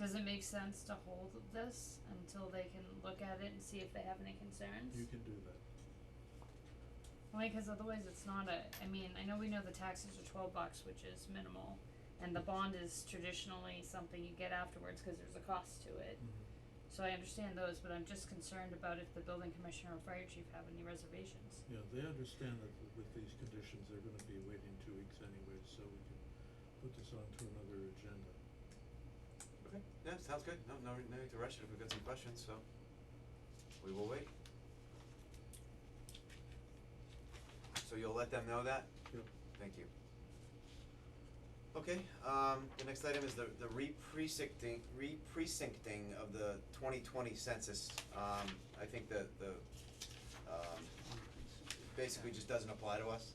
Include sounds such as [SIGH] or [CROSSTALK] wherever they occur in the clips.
Does it make sense to hold this until they can look at it and see if they have any concerns? You can do that. Only because otherwise it's not a, I mean, I know we know the taxes are twelve bucks, which is minimal, and the bond is traditionally something you get afterwards, cause there's a cost to it. Mm-hmm. So I understand those, but I'm just concerned about if the building commissioner or fire chief have any reservations. Yeah, they understand that w- with these conditions, they're gonna be waiting two weeks anyway, so we can put this on to another agenda. Okay, yeah, sounds good, no, no, no need to rush it if we've got some questions, so we will wait. So you'll let them know that? Yep. Thank you. Okay, um, the next item is the, the re-precincting, re-precincting of the twenty twenty census. Um, I think the, the, um, basically just doesn't apply to us.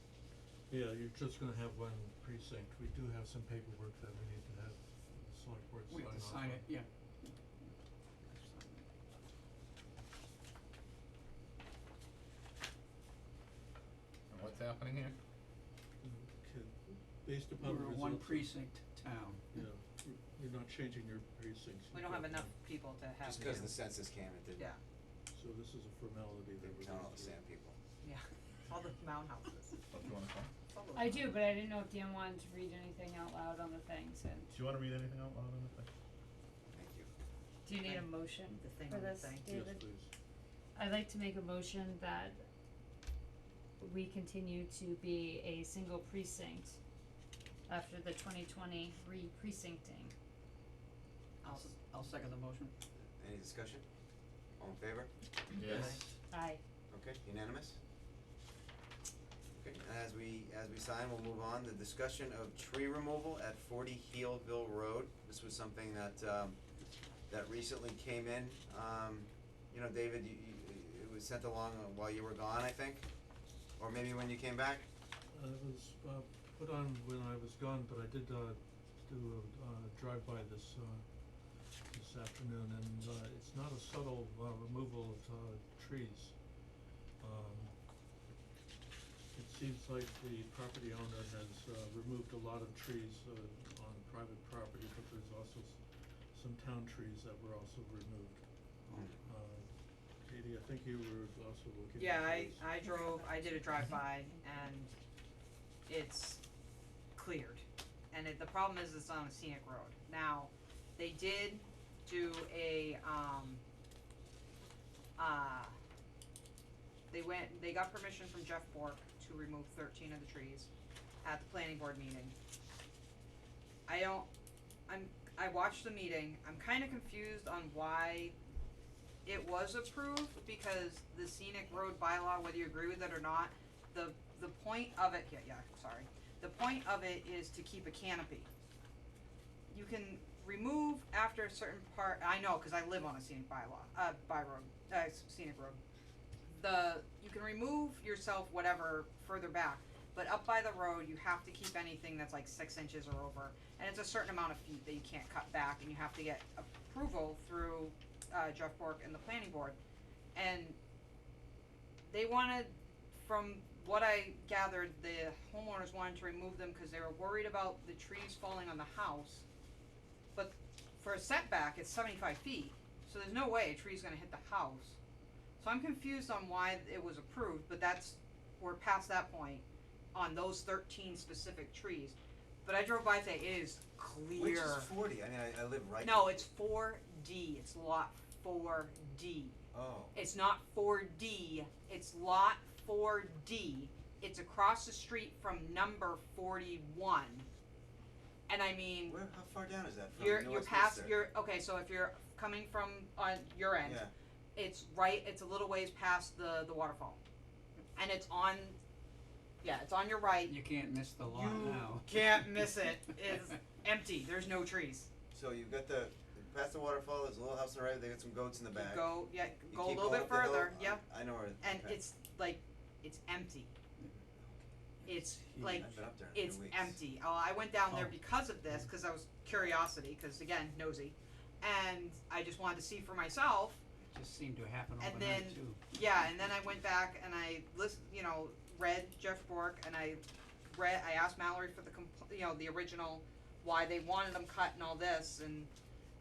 Yeah, you're just gonna have one precinct. We do have some paperwork that we need to have the select board We sign off on. have to sign it, yeah. And what's happening here? Okay, based upon the We're a one results of- precinct town. Yeah, you're- you're not changing your precincts. We You've don't have got enough one. people to have. Just cause two. the census came, it didn't, Yeah, So this is a formality that we're didn't count all the same people. yeah, all the mound houses, What do you wanna call? all the. I do, but I didn't know if Dan wanted to read anything out loud on the things, and Do you wanna read anything out loud on the thing? Thank you. do you need a Thing. motion The thing for on the this, thing. David? Yes, please. I'd like to make a motion that we continue to be a single precinct after the twenty twenty re-precincting. I'll, s- I'll second the motion. Any discussion? All in favor? Yes. Aye. Okay, unanimous? Okay, as we, as we sign, we'll move on, the discussion of tree removal at forty Heelville Road, this was something that, um, that recently came in, um, you know, David, you, you, it was sent along while you were gone, I think, or maybe when you came back? Uh, it was, uh, put on when I was gone, but I did, uh, do a, uh, drive-by this, uh, this afternoon, and, uh, it's not a subtle, uh, removal of, uh, trees. Um, it seems like the property owner has, uh, removed a lot of trees, uh, on private property, but there's also s- some town trees that were also removed. Uh, Katie, I think you were also looking at Yeah, I, those. I drove, I did a drive-by and it's cleared. And it, the problem is it's on a scenic road. Now, they did do a, um, uh, they went, they got permission from Jeff Bork to remove thirteen of the trees at the planning board meeting. I don't, I'm, I watched the meeting, I'm kinda confused on why it was approved because the scenic road bylaw, whether you agree with it or not, the, the point of it, yeah, yeah, sorry. The point of it is to keep a canopy. You can remove after a certain part, I know, cause I live on a scenic bylaw, uh, by road, uh, s- scenic road. The, you can remove yourself whatever further back, but up by the road, you have to keep anything that's like six inches or over. And it's a certain amount of feet that you can't cut back and you have to get approval through uh, Jeff Bork and the planning board, and they wanted, from what I gathered, the homeowners wanted to remove them because they were worried about the trees falling on the house. But for a setback, it's seventy-five feet, so there's no way a tree's gonna hit the house. So I'm confused on why it was approved, but that's, we're past that point on those thirteen specific trees. But I drove by today, it is clear. Which is forty, I mean, I, I live right. No, it's four D, it's lot four D. Oh, It's not four D, it's lot four D. It's across the street from number forty-one. And I mean, where, how far down is that from? you're, You know you're what's past, Worcester? you're, okay, so if you're coming from, on your end, Yeah, it's right, it's a little ways past the, the waterfall. And it's on, yeah, it's on your right. You can't miss the lot You now. can't miss [LAUGHS] it. It's empty, there's no trees. so you've got the, past the waterfall, there's a little house on the right, they got some goats in the You back. Go, yeah, You go a keep little going bit up the hill, further, I- yeah. I know where. and okay. it's like it's empty. It's like I've been up there in a few it's weeks. empty. Oh, I went down there Oh. because of this because I was curiosity because again nosy, and I just wanted to see for myself. It Just seemed to happen And overnight then- too. Yeah, and then I went back and I list, you know, read Jeff Bork and I read I asked Mallory for the compl- you know the original why they wanted them cut and all this and